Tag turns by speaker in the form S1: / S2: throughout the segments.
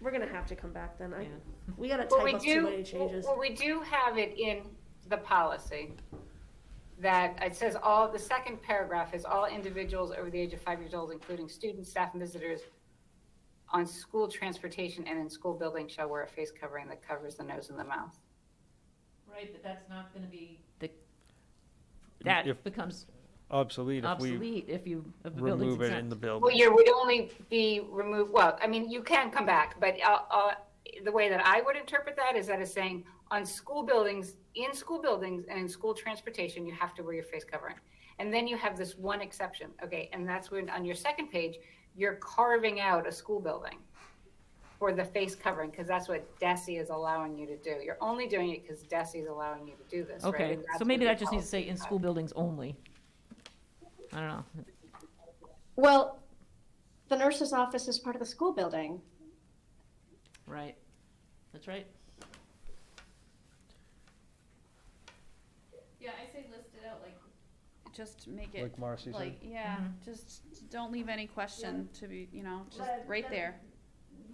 S1: we're gonna have to come back then. I,
S2: Yeah.
S1: we gotta
S3: Well,
S1: type
S3: we
S1: up too
S3: do,
S1: many changes.
S3: well, we do have it in the policy that it says all, the second paragraph is all individuals over the age of five years old, including students, staff, and visitors on school transportation and in school buildings shall wear a face covering that covers the nose and the mouth.
S2: Right, but that's not gonna be. The, that
S4: If-
S2: becomes
S4: obsolete if we
S2: obsolete if you, if the building's
S4: remove it in
S2: exempt.
S4: the building.
S3: Well, you would only be removed, well, I mean, you can come back, but uh, uh, the way that I would interpret that is that it's saying on school buildings, in school buildings and in school transportation, you have to wear your face covering. And then you have this one exception, okay, and that's when, on your second page, you're carving out a school building for the face covering, because that's what DESI is allowing you to do. You're only doing it because DESI is allowing you to do this, right?
S2: Okay,
S3: And that's
S2: so maybe
S3: what
S2: that
S3: the
S2: just needs to say
S3: policy
S2: in
S3: is.
S2: school buildings only. I don't know.
S5: Well, the nurse's office is part of the school building.
S2: Right. That's right.
S6: Yeah, I say list it out like. Just make it,
S4: Like Marcy said,
S6: like, yeah, just don't leave any question to be, you know, just
S1: Mm-hmm. Let-
S6: right
S1: let-
S6: there.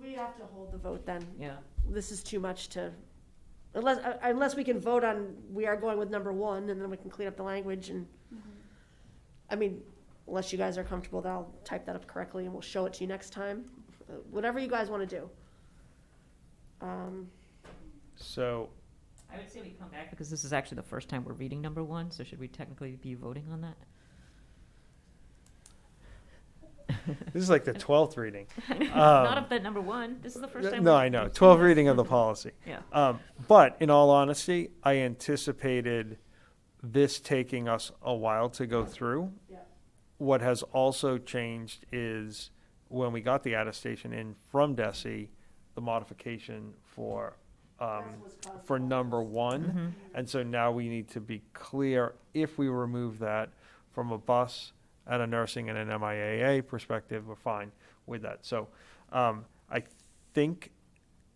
S1: We have to hold the vote then.
S2: Yeah.
S1: This is too much to, unless, uh, unless we can vote on, we are going with number one and then we can clean up the language and, I mean, unless you guys are comfortable, that I'll type that up correctly and we'll show it to you next time. Uh, Whatever you guys wanna do. Um,
S4: so
S2: I would say we come back. Because this is actually the first time we're reading number one, so should we technically be voting on that?
S4: this is like the twelfth reading.
S2: Not of the number one. This is the first time.
S4: Um, No,
S2: we're-
S4: I know, twelfth reading of the policy.
S2: Yeah.
S4: Um, but in all honesty, I anticipated this taking us a while to go through.
S1: Yeah.
S4: What has also changed is when we got the attestation in from Desi, the modification for, um, for number one. And so now we need to be clear if we remove that from a bus and a nursing and an MIAA perspective, we're fine with that. So um, I think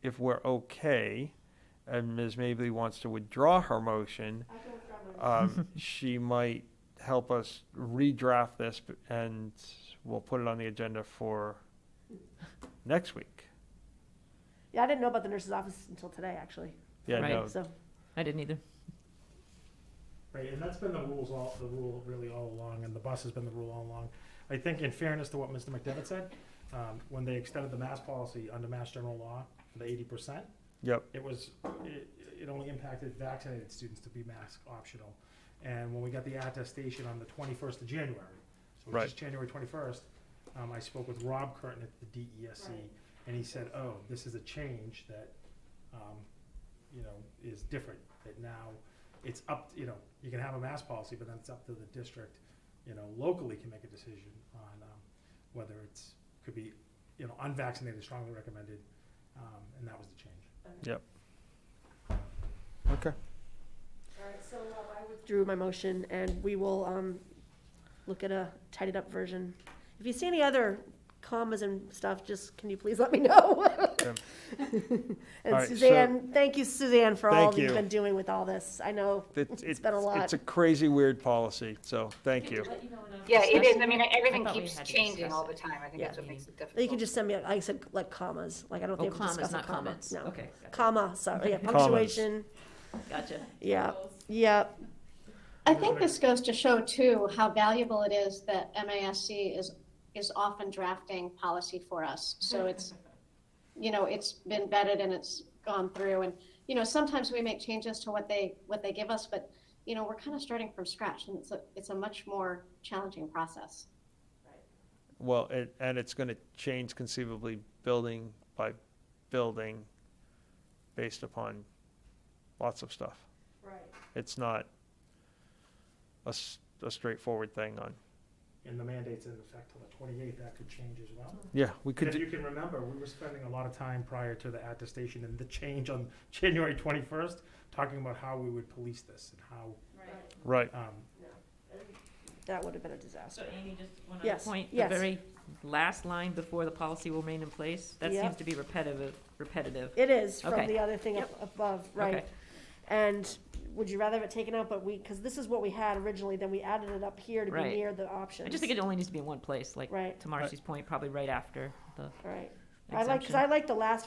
S4: if we're okay, and Ms. Mably wants to withdraw her motion, um, she might help us redraft this b- and we'll put it on the agenda for next week.
S1: yeah, I didn't know about the nurse's office until today, actually,
S4: Yeah,
S2: Right.
S4: no,
S1: so.
S2: I didn't either.
S7: Right, and that's been the rules all, the rule really all along, and the bus has been the rule all along. I think in fairness to what Mr. McDevitt said, um, when they extended the mass policy under mass general law, the eighty percent,
S4: yep,
S7: it was, it, it only impacted vaccinated students to be mask optional. And when we got the attestation on the twenty-first of January, so
S4: Right.
S7: which is January twenty-first, um, I spoke with Rob Curtin at the DESC, and he said, oh, this is a change that, um, you know, is different, that now it's up, you know, you can have a mask policy, but then it's up to the district, you know, locally can make a decision on, um, whether it's, could be, you know, unvaccinated, strongly recommended, um, and that was the change.
S4: okay.
S1: Alright, so uh, I withdrew my motion and we will, um, look at a tidied up version. If you see any other commas and stuff, just, can you please let me know? And
S4: Alright, so-
S1: Suzanne, thank you Suzanne for all
S4: Thank
S1: that you've
S4: you.
S1: been doing with all this. I know,
S4: It's,
S1: It's been a lot.
S4: It's a crazy, weird policy, so thank you.
S3: Yeah, it is, I mean,
S2: I
S3: everything
S2: thought we
S3: keeps
S2: had to
S3: changing
S2: discuss
S3: all
S2: it.
S3: the time, I think
S1: Yeah.
S3: that's what makes it difficult.
S1: you can just send me, like I said, like commas, like I don't
S2: Oh,
S1: think we
S2: commas,
S1: discuss a
S2: not
S1: comma.
S2: comments.
S1: No,
S2: Okay, gotcha.
S1: comma, sorry, yeah,
S4: Commas.
S1: punctuation,
S2: Gotcha.
S1: yeah, yeah,
S5: I think this goes to show too how valuable it is that MASC is, is often drafting policy for us. So it's, you know, it's been vetted and it's gone through and, you know, sometimes we make changes to what they, what they give us, but, you know, we're kind of starting from scratch and it's a, it's a much more challenging process.
S4: Well, it, and it's gonna change conceivably building by building based upon lots of stuff. Right. It's not a, s- a straightforward thing on,
S7: and the mandate's in effect till the twenty-eighth, that could change as well.
S4: yeah, we could
S7: If
S4: do,
S7: you can remember, we were spending a lot of time prior to the attestation and the change on January twenty-first, talking about how we would police this and
S4: right,
S7: how, um,
S1: that would have been a disaster.
S2: So Amy, just one other
S1: Yes,
S2: point, the
S1: yes.
S2: very last line before the policy will remain in place, that
S1: Yep.
S2: seems to be repetitive, repetitive.
S1: It is from
S2: Okay.
S1: the other thing up above, right?
S2: Okay.
S1: And would you rather have it taken out, but we, because this is what we had originally, then we added it up here to be
S2: Right.
S1: near the options.
S2: I just think it only needs to be in one place, like
S1: Right.
S2: to Marcy's point, probably right after the
S1: All right, I like, because
S2: exemption.
S1: I like the last